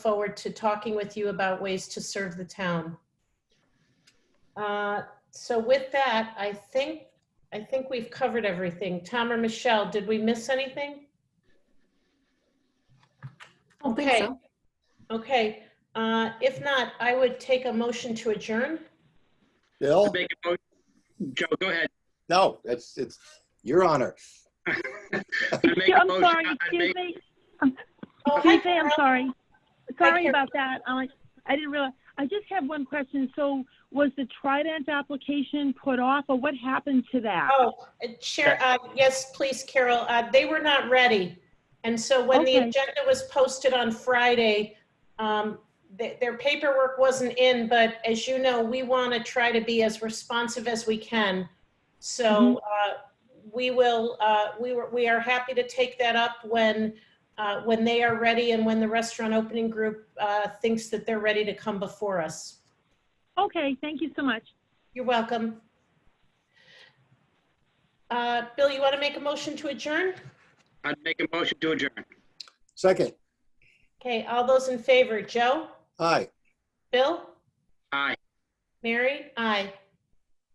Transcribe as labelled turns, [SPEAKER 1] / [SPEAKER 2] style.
[SPEAKER 1] forward to talking with you about ways to serve the town. Uh, So with that, I think, I think we've covered everything. Tom or Michelle, did we miss anything?
[SPEAKER 2] I don't think
[SPEAKER 1] Okay.
[SPEAKER 2] so.
[SPEAKER 1] Okay, uh, if not, I would take a motion to adjourn.
[SPEAKER 3] Bill?
[SPEAKER 4] Make a motion. Joe, go ahead.
[SPEAKER 3] No, it's, it's your honor.
[SPEAKER 4] I make a
[SPEAKER 5] I'm
[SPEAKER 4] motion-
[SPEAKER 5] sorry,
[SPEAKER 4] I- I
[SPEAKER 5] excuse
[SPEAKER 4] make-
[SPEAKER 5] me.
[SPEAKER 1] Oh, hi,
[SPEAKER 5] Excuse me, I'm
[SPEAKER 1] Carol.
[SPEAKER 5] sorry. Sorry
[SPEAKER 1] Carol.
[SPEAKER 5] about that. I, I didn't realize. I just have one question. So was the Trident application put off or what happened to that?
[SPEAKER 1] Oh, uh, Chair, uh, yes, please, Carol. Uh, They were not ready. And so when the
[SPEAKER 5] Okay.
[SPEAKER 1] agenda was posted on Friday, um, th- their paperwork wasn't in, but as you know, we want to try to be as responsive as we can. So uh, we will, uh, we were, we are happy to take that up when, uh, when they are ready and when the restaurant opening group uh, thinks that they're ready to come before us.
[SPEAKER 5] Okay, thank you so much.
[SPEAKER 1] You're welcome. Uh, Bill, you want to make a motion to adjourn?
[SPEAKER 4] I make a motion to adjourn.
[SPEAKER 3] Second,
[SPEAKER 1] Okay, all those in favor, Joe?
[SPEAKER 3] aye.
[SPEAKER 1] Bill?
[SPEAKER 4] Aye.
[SPEAKER 1] Mary? Aye.